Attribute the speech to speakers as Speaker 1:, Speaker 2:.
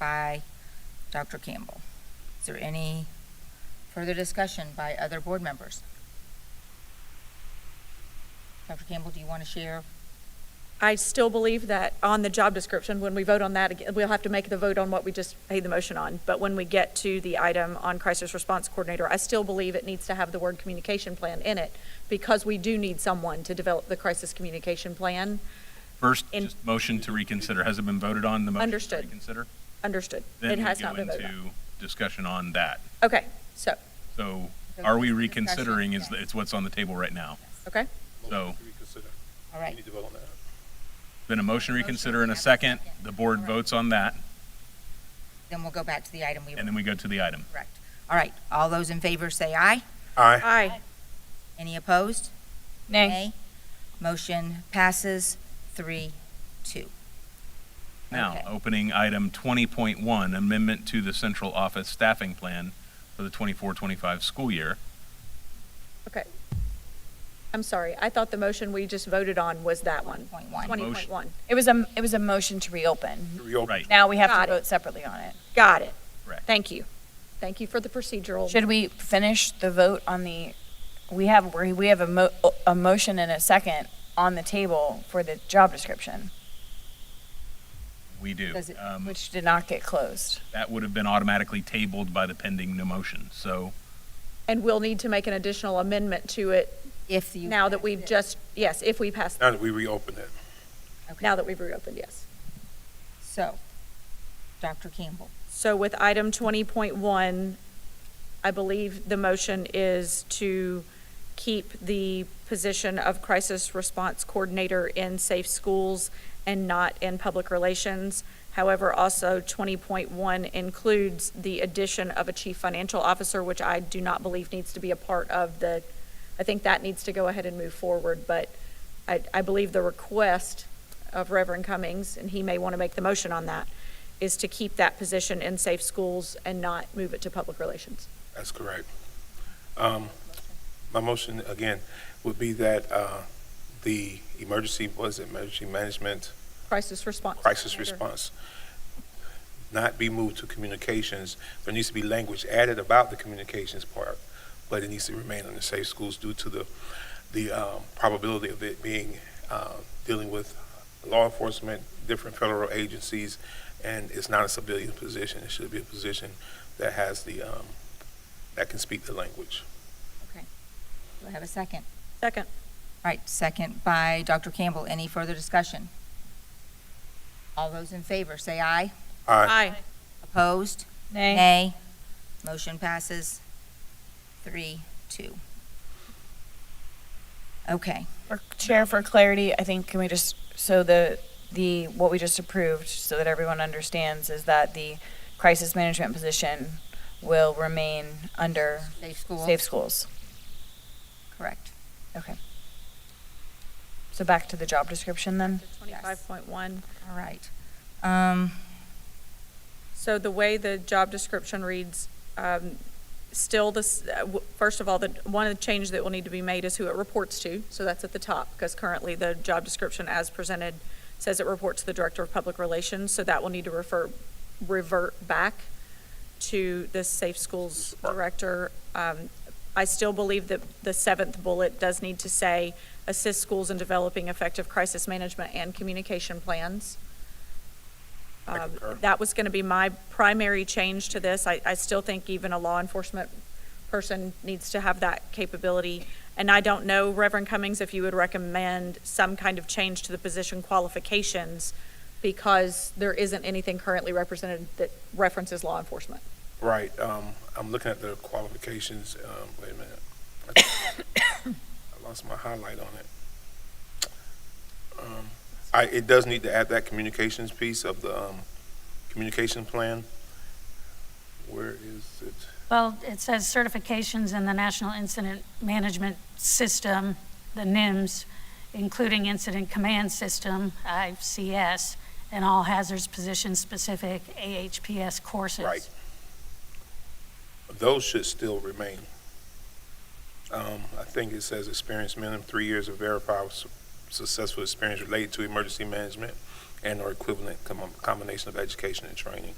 Speaker 1: by Dr. Campbell. Is there any further discussion by other board members? Dr. Campbell, do you want to share?
Speaker 2: I still believe that on the job description, when we vote on that, again, we'll have to make the vote on what we just made the motion on. But when we get to the item on crisis response coordinator, I still believe it needs to have the word communication plan in it because we do need someone to develop the crisis communication plan.
Speaker 3: First,
Speaker 2: In-
Speaker 3: just motion to reconsider. Has it been voted on, the motion to
Speaker 2: Understood.
Speaker 3: reconsider?
Speaker 2: Understood. It
Speaker 3: Then we
Speaker 2: has
Speaker 3: go
Speaker 2: not been voted on.
Speaker 3: into discussion on that.
Speaker 2: Okay, so,
Speaker 3: So
Speaker 1: So
Speaker 3: are we
Speaker 1: discussion,
Speaker 3: reconsidering is,
Speaker 1: yeah.
Speaker 3: it's what's on the table right now?
Speaker 2: okay,
Speaker 3: So-
Speaker 4: Motion to reconsider.
Speaker 1: All
Speaker 4: We
Speaker 1: right,
Speaker 4: need to vote on that.
Speaker 3: Been a motion to
Speaker 1: Motion,
Speaker 3: reconsider and a
Speaker 1: yeah,
Speaker 3: second.
Speaker 1: second.
Speaker 3: The board
Speaker 1: Correct.
Speaker 3: votes on that,
Speaker 1: then we'll go back to the item we were,
Speaker 3: and then we go to the item.
Speaker 1: correct. All right, all those in favor say aye.
Speaker 4: Aye.
Speaker 2: aye,
Speaker 1: Any opposed? Nay. Motion passes three, two.
Speaker 3: Now,
Speaker 1: Okay.
Speaker 3: opening item 20.1, amendment to the central office staffing plan for the 24-25 school year.
Speaker 2: okay. I'm sorry, I thought the motion we just voted on was that one.
Speaker 1: Point one.
Speaker 2: Twenty point one,
Speaker 5: It was a, it was a motion to reopen.
Speaker 4: Reopen.
Speaker 3: Right,
Speaker 5: Now we have
Speaker 2: Got
Speaker 5: to
Speaker 2: it.
Speaker 5: vote separately on it.
Speaker 2: got it.
Speaker 3: correct.
Speaker 2: Thank you. Thank you for the procedural.
Speaker 5: Should we finish the vote on the, we have, we we have a mo, a motion and a second on the table for the job description,
Speaker 3: We do.
Speaker 1: Does it-
Speaker 3: Um,
Speaker 5: which did not get closed.
Speaker 3: That would have been automatically tabled by the pending no motion. So
Speaker 2: And we'll need to make an additional amendment to it
Speaker 1: If you.
Speaker 2: now that we've just, yes, if we pass,
Speaker 4: Now that we reopen it.
Speaker 2: now that we've reopened, yes.
Speaker 1: So, Dr. Campbell,
Speaker 2: So with item twenty point one, I believe the motion is to keep the position of crisis response coordinator in safe schools and not in public relations. However, also twenty point one includes the addition of a chief financial officer, which I do not believe needs to be a part of the, I think that needs to go ahead and move forward, but I, I believe the request of Reverend Cummings, and he may want to make the motion on that, is to keep that position in safe schools and not move it to public relations.
Speaker 4: That's correct. Um, my motion again would be that, uh, the emergency, was it emergency management,
Speaker 2: Crisis response.
Speaker 4: crisis
Speaker 2: coordinator.
Speaker 4: response not be moved to communications. There needs to be language added about the communications part, but it needs to remain under safe schools due to the, the, um, probability of it being, uh, dealing with law enforcement, different federal agencies, and it's not a civilian position. It should be a position that has the, um, that can speak the language.
Speaker 1: do I have a second?
Speaker 2: Second.
Speaker 1: All right, second by Dr. Campbell. Any further discussion? All those in favor, say aye.
Speaker 4: Aye.
Speaker 2: Aye.
Speaker 1: Opposed?
Speaker 5: Nay.
Speaker 1: Nay. Motion passes three, two. Okay,
Speaker 5: For- Chair, for clarity, I think, can we just, so the, the, what we just approved, so that everyone understands, is that the crisis management position will remain under
Speaker 1: safe school,
Speaker 5: safe schools.
Speaker 1: correct.
Speaker 5: Okay. So back to the job description then?
Speaker 2: Twenty-five point one.
Speaker 1: All right. Um,
Speaker 2: So the way the job description reads, um, still this, uh, w- first of all, the, one of the changes that will need to be made is who it reports to. So that's at the top, because currently the job description as presented says it reports to the Director of Public Relations. So that will need to refer, revert back to the Safe Schools Director. Um, I still believe that the seventh bullet does need to say, assist schools in developing effective crisis management and communication plans.
Speaker 4: I
Speaker 2: Um,
Speaker 4: concur.
Speaker 2: That was going to be my primary change to this. I, I still think even a law enforcement person needs to have that capability. And I don't know, Reverend Cummings, if you would recommend some kind of change to the position qualifications because there isn't anything currently represented that references law enforcement.
Speaker 4: Right, um, I'm looking at the qualifications, um, wait a minute. I lost my highlight on it. Um, I, it does need to add that communications piece of the, um, communication plan. Where is it?
Speaker 6: Well, it says certifications in the National Incident Management System, the NIMS, including Incident Command System, ICS, and all hazards position-specific AHPS courses.
Speaker 4: Right. Those should still remain. Um, I think it says experience minimum, three years of verifiable su- successful experience related to emergency management and or equivalent com- combination of education and training.